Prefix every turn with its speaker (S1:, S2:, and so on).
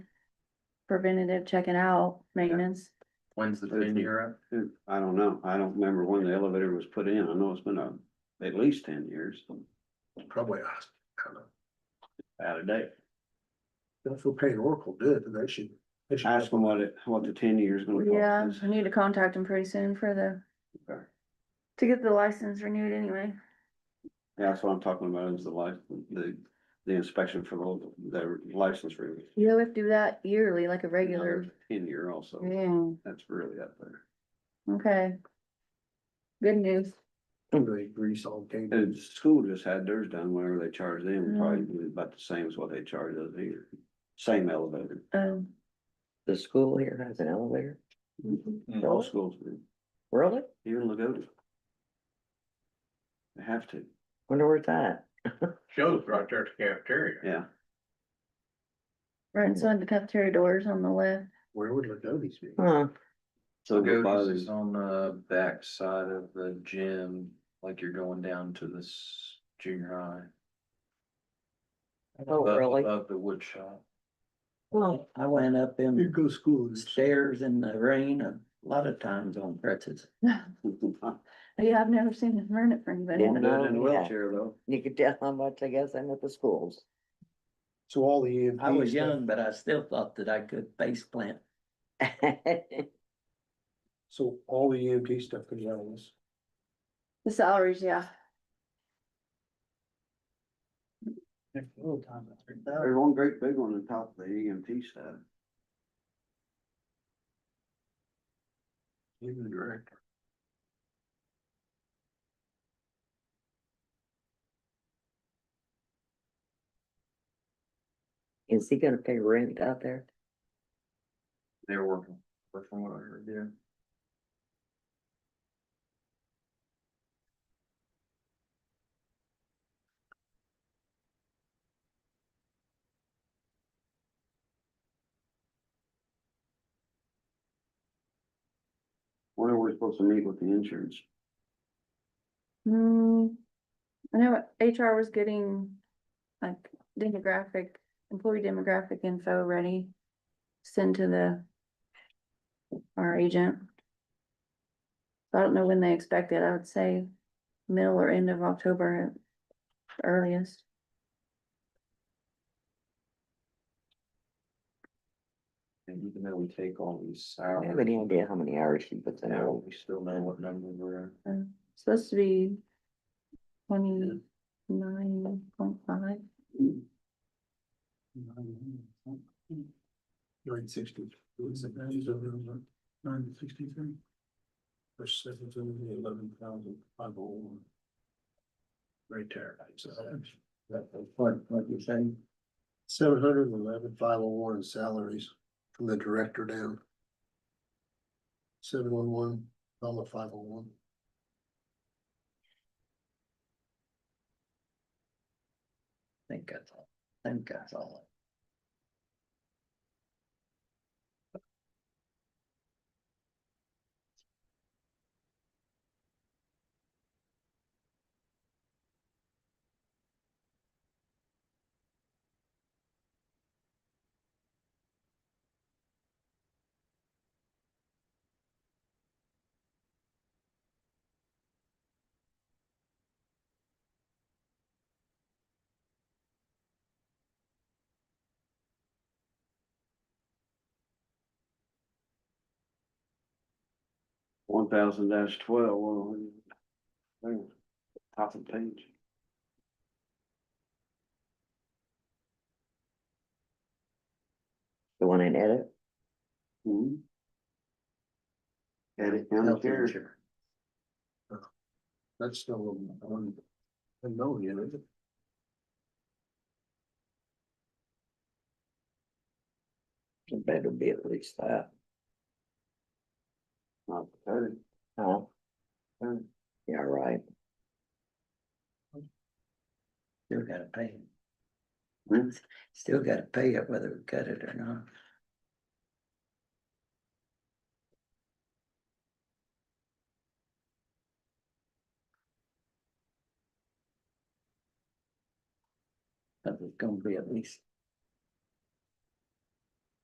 S1: preventative checking out maintenance.
S2: When's the
S3: Thirteen.
S2: ten year up?
S3: I don't know. I don't remember when the elevator was put in. I know it's been a, at least ten years
S4: probably, us. I don't know.
S3: out of date.
S4: That's what Payne Oracle did, and they should. they should-
S3: Ask them what it, what the ten years gonna
S1: Yeah,
S3: cost
S1: we need to contact them pretty soon for the,
S3: us.
S1: to get the license renewed anyway.
S3: Yeah, That's what I'm talking about is the life, the, the inspection for the, the license review.
S1: Yeah, we have to do that yearly, like a regular.
S3: Ten year also.
S1: Yeah,
S3: That's really up there.
S1: okay. Good news.
S4: They grease all game.
S3: And school just had theirs done whenever they charged
S1: Mm.
S3: them, probably about the same as what they charge us here. Same elevator.
S1: Um,
S5: The school here has an elevator,
S1: Mm-hmm.
S5: Oh.
S3: All schools do.
S5: really?
S3: Even Lagoda. They have to,
S5: Wonder where it's at?
S2: Shows right there at the cafeteria.
S3: yeah.
S1: right inside the cafeteria doors on the left.
S4: Where would Lagodes be?
S5: Huh,
S3: So
S2: Go,
S3: go by
S2: this is
S3: the,
S2: on the back side of the gym, like you're going down to this junior high.
S5: oh,
S2: above-
S5: really?
S2: Above the wood shop.
S5: Well, I went up
S4: You
S5: in
S4: go to school and
S5: stairs in the rain a lot of times on pretzels.
S1: Yeah, I've never seen it run it for anybody.
S5: Yeah.
S3: won't do it in a
S5: Yeah.
S3: wheelchair though.
S5: You could tell how much I guess I know the schools.
S4: so all the. EMTs
S6: I was
S4: stuff-
S6: young, but I still thought that I could face plant.
S4: So all the EMT stuff comes out of this.
S1: The salaries, yeah.
S3: There's one great big one on top of the E EMT stuff.
S4: Even the director.
S5: Is he gonna pay rent out there?
S2: They're working, but from what I heard, yeah.
S3: When are we supposed to meet with the insurance?
S1: Hmm, I know HR was getting like demographic, employee demographic info ready. Send to the. Our agent. I don't know when they expect it. I would say middle or end of October at earliest.
S2: And even though we take all these
S5: I have any
S2: hours,
S5: idea how many hours she puts in.
S2: now we still know what number we're at.
S1: Um, Supposed to be twenty-nine point five.
S4: Nine sixty. Nine sixty-three. First, seven, eleven thousand, five oh one. Right there.
S6: What, what you're saying?
S4: Seven hundred and eleven, five oh one salaries from the director down. Seven one one, dollar five oh one.
S6: I think that's all. I think that's all.
S3: One thousand dash twelve, well, there, top of the page.
S5: The one in edit?
S3: Hmm. Edit county
S6: Health
S3: care.
S6: insurance.
S4: That's still a- one, a million, isn't it?
S5: It better be at least that.
S3: Not pathetic.
S5: Huh? Yeah, right.
S6: Still gotta pay
S3: Hmm?
S6: it. Still gotta pay it whether we cut it or not. But it's gonna be at least